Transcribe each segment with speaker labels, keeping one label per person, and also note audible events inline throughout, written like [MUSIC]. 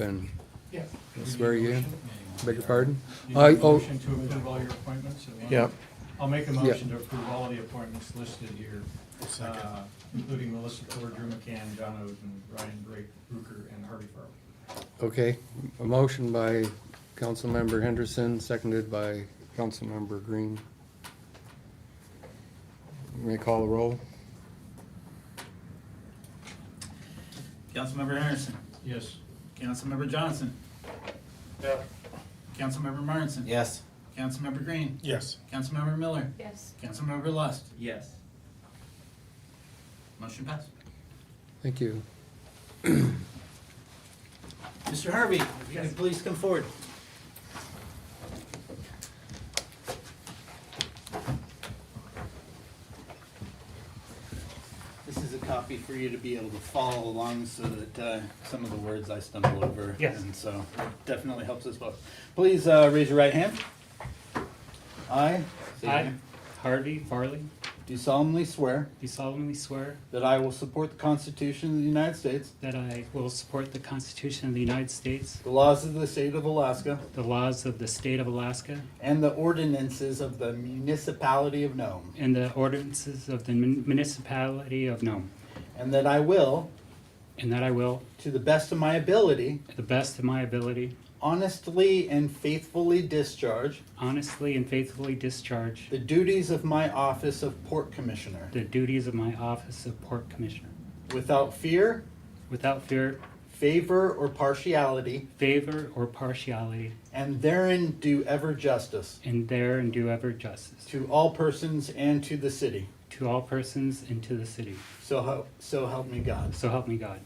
Speaker 1: and
Speaker 2: Yeah.
Speaker 1: swear you in. Beg your pardon?
Speaker 2: You
Speaker 1: I,
Speaker 2: need a
Speaker 1: oh,
Speaker 2: motion to approve all your appointments? at once?
Speaker 1: Yeah.
Speaker 2: I'll make a motion to approve all the appointments listed here, uh, including Melissa Ford, Drew McCann, John Oden, Ryan Brake, Bruker, and Harvey Farley.
Speaker 1: okay. A motion by Councilmember Henderson, seconded by Councilmember Green. May I call the roll?
Speaker 3: Councilmember Henderson.
Speaker 2: Yes.
Speaker 3: Councilmember Johnson.
Speaker 2: Yeah.
Speaker 3: Councilmember Martinson.
Speaker 4: Yes.
Speaker 3: Councilmember Green.
Speaker 4: Yes.
Speaker 3: Councilmember Miller.
Speaker 5: Yes.
Speaker 3: Councilmember Lust.
Speaker 4: Yes.
Speaker 3: Motion
Speaker 6: [LAUGHS]
Speaker 3: passed.
Speaker 1: Thank you.
Speaker 3: Mr. Harvey, if you could please come forward. This is a copy for you to be able to follow along so that uh, some of the words I stumble over.
Speaker 4: Yes.
Speaker 3: And so it definitely helps us both. Please uh, raise your right hand. I. say your
Speaker 4: I,
Speaker 3: name,
Speaker 4: Harvey Farley,
Speaker 3: Do solemnly swear
Speaker 4: do solemnly swear
Speaker 3: that I will support the Constitution of the United States,
Speaker 4: that I will support the Constitution of the United States,
Speaker 3: the laws of the state of Alaska,
Speaker 4: the laws of the state of Alaska,
Speaker 3: and the ordinances of the municipality of Nome,
Speaker 4: and the ordinances of the mun- municipality of Nome,
Speaker 3: and that I will,
Speaker 4: and that I will,
Speaker 3: to the best of my ability,
Speaker 4: to the best of my ability,
Speaker 3: honestly and faithfully discharge
Speaker 4: honestly and faithfully discharge
Speaker 3: the duties of my office of Port Commissioner,
Speaker 4: the duties of my office of Port Commissioner,
Speaker 3: without fear,
Speaker 4: without fear,
Speaker 3: favor, or partiality,
Speaker 4: favor, or partiality,
Speaker 3: and therein do ever justice
Speaker 4: and there and do ever justice
Speaker 3: to all persons and to the city.
Speaker 4: to all persons and to the city.
Speaker 3: So, hel- so help me God.
Speaker 4: So help me God.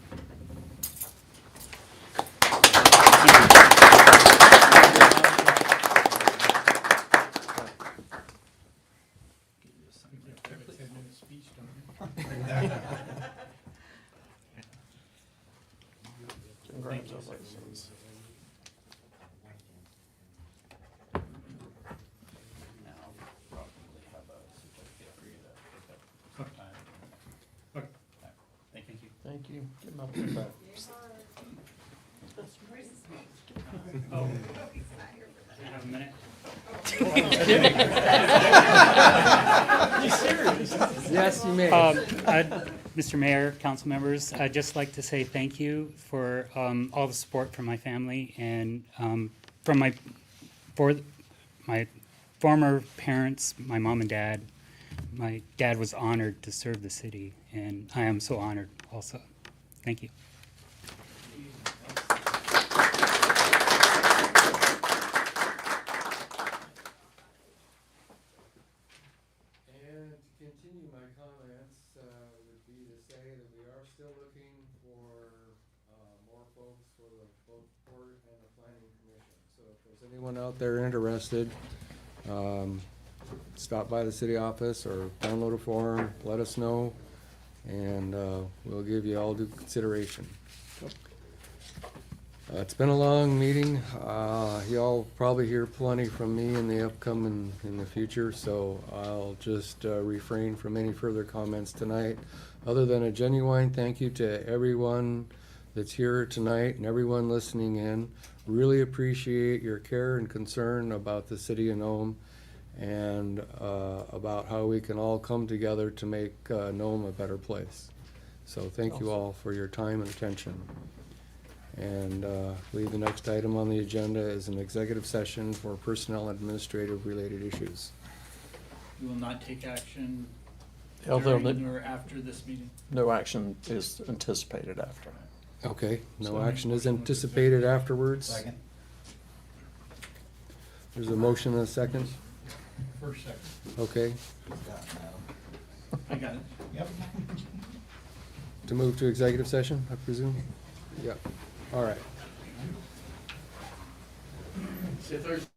Speaker 3: Now, probably have a certificate for you to pick up.
Speaker 2: Okay.
Speaker 3: Thank you.
Speaker 6: Thank you. Give him a big five.
Speaker 4: Do you have a minute?
Speaker 1: Yes, you may.
Speaker 4: Um, I'd- Mr. Mayor, council members, I'd just like to say thank you for um, all the support from my family and um, from my, for my former parents, my mom and dad. My dad was honored to serve the city, and I am so honored also. Thank you.
Speaker 1: And to continue my comments, uh, would be to say that we are still looking for, uh, more folks for the both board and the planning commission. So if there's anyone out there interested, um, stop by the city office or download a form, let us know, and, uh, we'll give you all due consideration. Uh, It's been a long meeting. Uh, Y'all probably hear plenty from me in the upcoming, in the future, so I'll just uh, refrain from any further comments tonight, other than a genuine thank you to everyone that's here tonight and everyone listening in. Really appreciate your care and concern about the city of Nome and uh, about how we can all come together to make uh, Nome a better place. So thank you all for your time and attention. And uh, I believe the next item on the agenda is an executive session for personnel and administrative related issues.
Speaker 3: You will not take action
Speaker 6: Although the-
Speaker 3: during or after this meeting?
Speaker 6: no action is anticipated after.
Speaker 1: Okay,
Speaker 2: So
Speaker 1: no
Speaker 2: make
Speaker 1: action is
Speaker 2: motion to accept.
Speaker 1: anticipated afterwards. There's a motion and a second,
Speaker 2: First second.
Speaker 1: okay,
Speaker 3: I got it.
Speaker 2: Yep.
Speaker 1: to move to executive session, I presume? Yep, all right.
Speaker 3: See you Thursday.